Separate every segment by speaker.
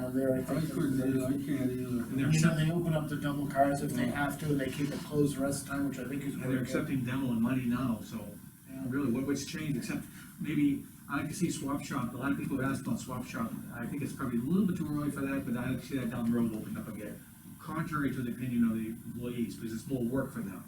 Speaker 1: down there, I
Speaker 2: I
Speaker 1: think.
Speaker 2: couldn't, either, I can't either.
Speaker 3: And they're
Speaker 1: You know,
Speaker 3: accepting,
Speaker 1: they open up the double cars if they have to, and they keep it closed the rest of the time, which I think is.
Speaker 3: and they're accepting demo and money now, so
Speaker 1: Yeah.
Speaker 3: really, what, what's changed, except maybe, I like to see swap shop, a lot of people have asked about swap shop. I think it's probably a little bit too early for that, but I like to see that down the road opened up again, contrary to the opinion of the employees, because it's more work for them.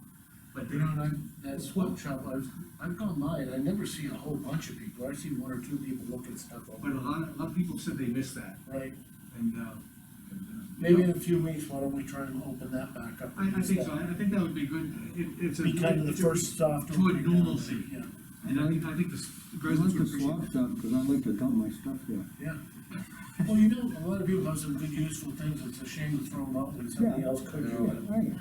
Speaker 3: But
Speaker 1: You
Speaker 3: they're
Speaker 1: know, and I, that swap shop, I was, I've gone by, and I never see a whole bunch of people, I see one or two people looking stuff over.
Speaker 3: But a lot, a lot of people said they missed that,
Speaker 1: Right,
Speaker 3: and, uh, and, uh,
Speaker 1: maybe in a few weeks, why don't we try and open that back up?
Speaker 3: I, I think so, I, I think that would be good, it, it's a.
Speaker 1: Be kind of the
Speaker 3: it's a-
Speaker 1: first soft.
Speaker 3: to a
Speaker 1: opening down there,
Speaker 3: normalcy.
Speaker 1: Yeah,
Speaker 3: And I think, I think the s-
Speaker 2: I like
Speaker 3: residents would
Speaker 2: the
Speaker 3: appreciate
Speaker 2: swap
Speaker 3: that.
Speaker 2: shop, cause I like to dump my stuff there.
Speaker 1: yeah. Well, you know, a lot of people have some good useful things, it's a shame to throw them out when somebody else could do it.
Speaker 2: Right.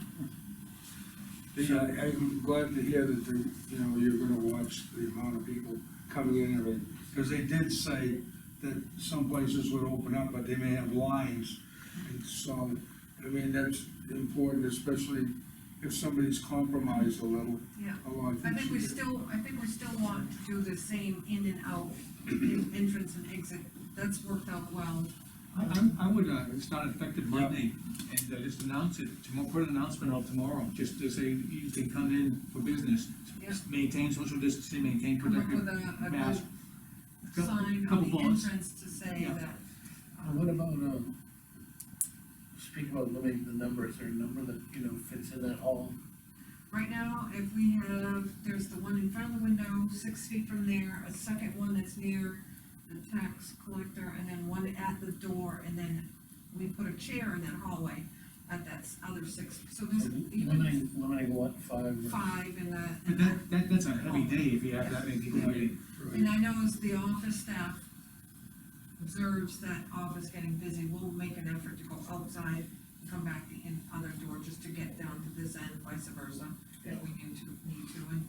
Speaker 4: Yeah, I- I'm glad to hear that, the- you know, you're gonna watch the amount of people coming in and everything. Because they did say that some places would open up, but they may have lines. And so, I mean, that's important, especially if somebody's compromised a little.
Speaker 5: Yeah,
Speaker 4: a lot of
Speaker 5: I think we
Speaker 4: things.
Speaker 5: still, I think we still want to do the same in and out, en- entrance and exit, that's worked out well.
Speaker 3: I, I'm- I would, uh, it's not effective Monday, and uh, just announce it, tomorrow, put an announcement out tomorrow, just to say you can come in for business.
Speaker 5: Yeah.
Speaker 3: Just Maintain social distancing, maintain
Speaker 5: Come up with
Speaker 3: productive
Speaker 5: a, a
Speaker 3: mask.
Speaker 5: good
Speaker 3: Couple-
Speaker 5: sign
Speaker 3: couple
Speaker 5: on the
Speaker 3: bullets.
Speaker 5: entrance to say
Speaker 3: Yeah.
Speaker 5: that.
Speaker 1: And what about, um, speak about limiting the number, is there a number that, you know, fits in that hall?
Speaker 5: Right now, if we have, there's the one in front of the window, six feet from there, a second one that's near the tax collector, and then one at the door, and then we put a chair in that hallway at that s- other six, so there's even
Speaker 1: Limiting, limiting what, five? or-
Speaker 5: five in that.
Speaker 3: But that, that, that's a heavy day if you have that many people waiting.
Speaker 5: And I know as the office staff observes that office getting busy, we'll make an effort to go outside and come back the in other door just to get down to this end, vice versa, if we need to, need to. And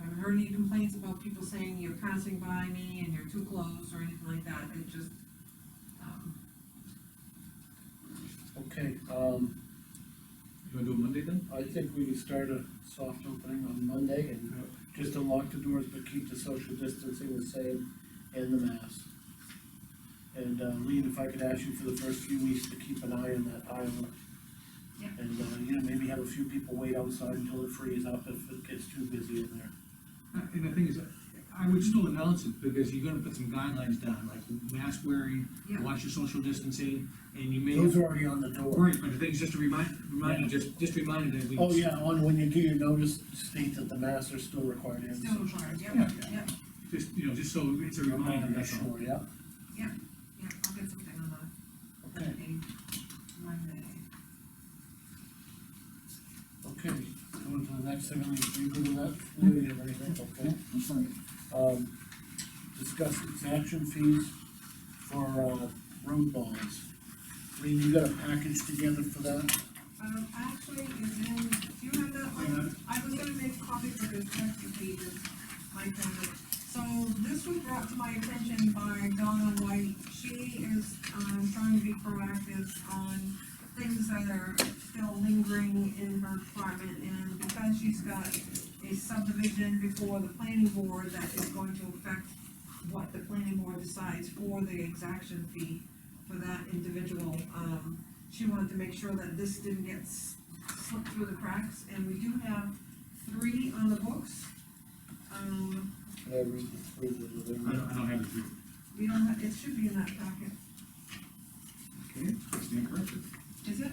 Speaker 5: I haven't heard any complaints about people saying you're passing by me and you're too close or anything like that, it just, um,
Speaker 1: Okay, um,
Speaker 3: You wanna do it Monday then?
Speaker 1: I think we can start a soft opening on Monday and just unlock the doors, but keep the social distancing the same and the mask. And, uh, Lean, if I could ask you for the first few weeks to keep an eye on that island.
Speaker 5: Yeah.
Speaker 1: And, uh, you know, maybe have a few people wait outside until it frees up if it gets too busy in there.
Speaker 3: Uh, And the thing is, I would still announce it, because you're gonna put some guidelines down, like mask wearing,
Speaker 5: Yeah.
Speaker 3: watch your social distancing, and you may.
Speaker 1: Those are already on the door.
Speaker 3: Right, but the thing is, just to remind, remind you, just, just remind you that we.
Speaker 1: Oh, yeah, on, when you do your notice, state that the masks are still required. and
Speaker 5: still required, yep,
Speaker 3: Yeah.
Speaker 5: yep,
Speaker 3: Just, you know, just so it's a
Speaker 1: social-
Speaker 3: reminder, that's all.
Speaker 1: Sure, yeah,
Speaker 5: yeah, I'll get something on that.
Speaker 1: okay.
Speaker 5: Monday.
Speaker 1: Okay, going to the next thing, I'm gonna do with that, Lou, you have anything, okay?
Speaker 2: I'm sorry.
Speaker 1: Um, discuss exemption fees for, uh, road bonds. Lean, you got a package together for that?
Speaker 5: Um, actually, is in, do you have that one? I was gonna make a copy for the detective pages, like that. So this was brought to my attention by Donna White. She is, um, trying to be proactive on things that are still lingering in her department. And because she's got a subdivision before the planning board that is going to affect what the planning board decides for the exaction fee for that individual, um, she wanted to make sure that this didn't get s- slipped through the cracks, and we do have three on the books. Um,
Speaker 1: Can I read this through the
Speaker 3: I
Speaker 1: delivery?
Speaker 3: don't, I don't have it here.
Speaker 5: we don't have, it should be in that packet,
Speaker 3: Okay, I stand corrected.
Speaker 5: is it?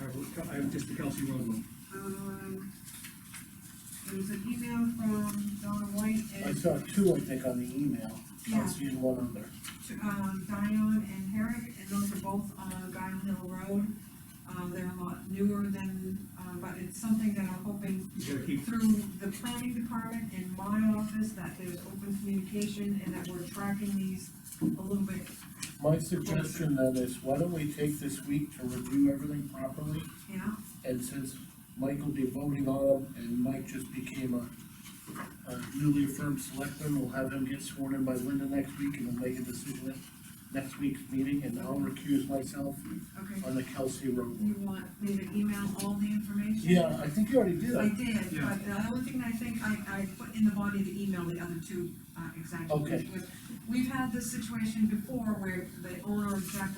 Speaker 3: I have, I have just the Kelsey Road one.
Speaker 5: Um, there was an email from Donna White
Speaker 1: I
Speaker 5: and,
Speaker 1: saw two, I think, on the email, I
Speaker 5: Yeah.
Speaker 1: see one on there.
Speaker 5: um, Dion and Herrick, and those are both on Guile Hill Road. Um, they're a lot newer than, uh, but it's something that I'm hoping
Speaker 3: You gotta keep,
Speaker 5: through the planning department and my office that there's open communication and that we're tracking these a little bit.
Speaker 1: My suggestion then is, why don't we take this week to review everything properly?
Speaker 5: Yeah,
Speaker 1: And since Mike will be voting on him, and Mike just became a, a newly affirmed selectman, we'll have him get sworn in by Linda next week, and we'll make a decision at next week's meeting, and I'll recuse myself
Speaker 5: okay.
Speaker 1: on the Kelsey Road.
Speaker 5: You want me to email all the information?
Speaker 1: Yeah, I think you already did.
Speaker 5: I
Speaker 1: I-
Speaker 5: did,
Speaker 3: Yeah.
Speaker 5: but the only thing I think I, I put in the body of the email, the other two, uh, exactly.
Speaker 1: Okay.
Speaker 5: which was we've had this situation before where the owner exactly